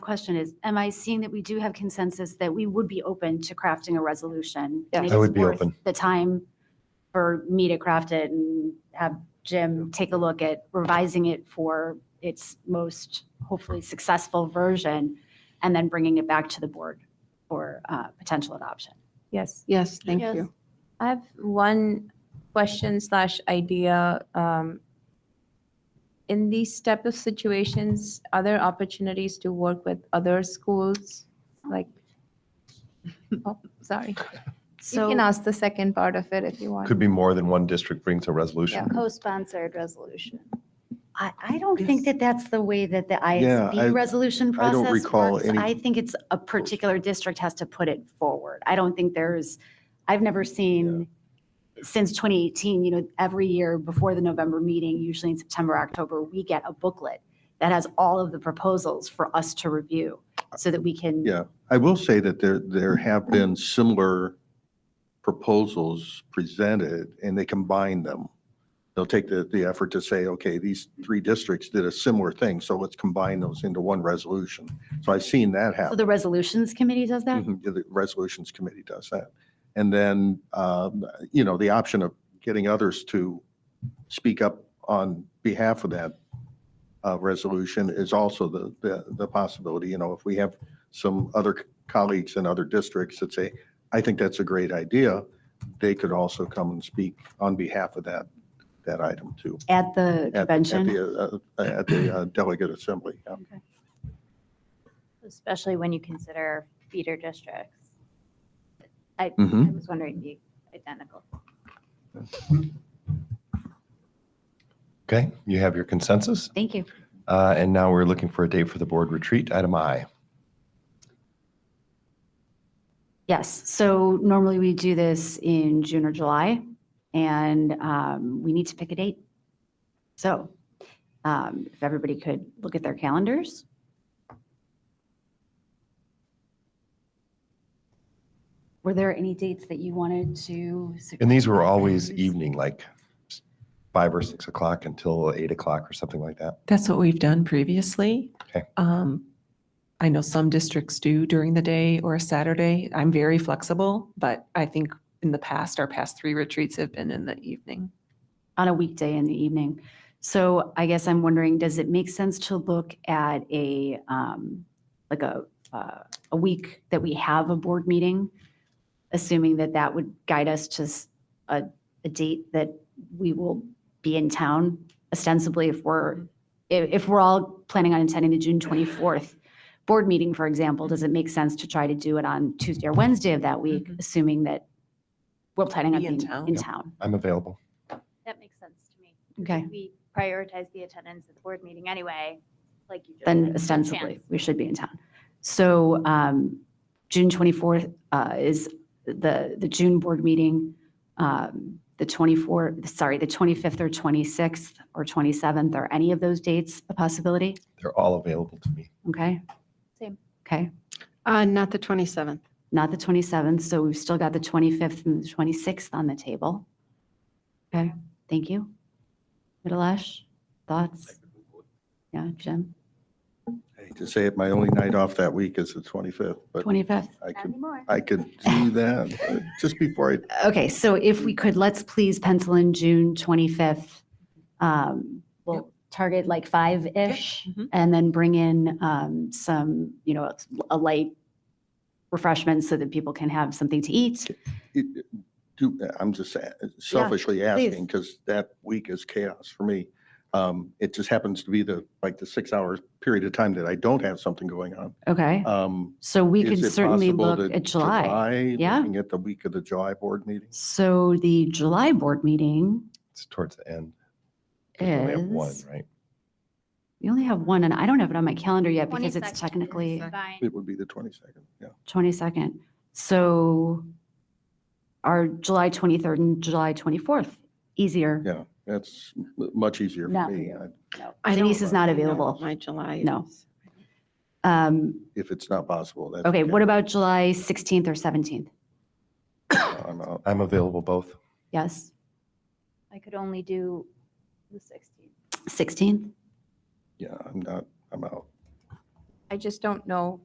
question is, am I seeing that we do have consensus that we would be open to crafting a resolution? and Yes. it I is would be worth open. The time for me to craft it and have Jim take a look at revising it for its most hopefully successful version and then bringing it back to the board for uh, potential adoption. Yes. Yes, thank Yes. you. I have one question slash idea. um, In these type of situations, are there opportunities to work with other schools? Like, oh, sorry. You So. can ask the second part of it if you want. Could be more than one district brings a resolution. Co-sponsored resolution. I, I don't think that that's the way that the I- ISB resolution I don't process recall works. any- I think it's a particular district has to put it forward. I don't think there's, I've never seen, since 2018, you know, every year before the November meeting, usually in September, October, we get a booklet that has all of the proposals for us to review so that we can. Yeah. I will say that there, there have been similar proposals presented and they combine them. They'll take the, the effort to say, okay, these three districts did a similar thing, so let's combine those into one resolution. So I've seen that So happen. the resolutions committee does that? Mm-hmm. Mhm, The Resolutions Committee does that. And then, um, you know, the option of getting others to speak up on behalf of that uh, resolution is also the, the, the possibility, you know, if we have some other colleagues in other districts that say, I think that's a great idea, they could also come and speak on behalf of that, that item too. At the at- at the, convention? uh, uh, At the uh, delegate assembly, yeah. Especially when you consider feeder districts. I, I Mhm. was wondering the identical. Okay, you have your consensus. Thank you. Uh, And now we're looking for a date for the board retreat, item I. Yes, so normally we do this in June or July, and um, we need to pick a date. So um, if everybody could look at their calendars. Were there any dates that you wanted to? And these were always evening, like five or six o'clock until eight o'clock or something like that. That's what we've done previously. Okay. Um, I know some districts do during the day or a Saturday. I'm very flexible, but I think in the past, our past three retreats have been in the evening. on a weekday in the evening. So I guess I'm wondering, does it make sense to look at a, um, like a, uh, a week that we have a board meeting? Assuming that that would guide us to s- a, a date that we will be in town ostensibly if we're, if, if we're all planning on attending the June 24th board meeting, for example, does it make sense to try to do it on Tuesday or Wednesday of that week, Mhm. assuming that we're planning on Be in being town. in Yep. town? I'm available. That makes sense to me. Okay. We prioritize the attendance at the board meeting anyway, like you just. then said, ostensibly, chance. we should be in town. So um, June 24th uh, is the, the June board meeting, um, the 24th, sorry, the 25th or 26th or 27th, are any of those dates a possibility? They're all available to me. Okay? Same. Okay, Uh, not the 27th. not the 27th, so we've still got the 25th and the 26th on the table. Okay, thank you. Middleash, thoughts? Yeah, Jim? I hate to say it, my only night off that week is the 25th, but 25th? I Not could anymore. I could do that, but just before I, Okay, so if we could, let's please pencil in June 25th. Um, Yep. We'll target like five-ish Mhm. and then bring in um, some, you know, a light refreshment so that people can have something to eat. it- do, I'm just a- selfishly asking, because that week is chaos for me. Um, It just happens to be the, like, the six-hour period of time that I don't have something going on. Okay, Um, so we is could it certainly possible look that at July. Yeah. Looking at the week of the July board meeting? So the July board meeting, It's towards the end. 'cause we only have one, Is- right? we only have one and I don't have it on my calendar yet because it's 22nd is technically fine. It would be the 22nd, yeah. 22nd. So are July 23rd and July 24th easier? Yeah, that's m- much easier No. for me. I- I don't- Denise is not I know available. My July. No. is- Um, If it's not possible, that's. okay, what about July 16th or 17th? I'm out. I'm available both. Yes, I could only do the 16th. 16th? Yeah, I'm not, I'm out. I just don't know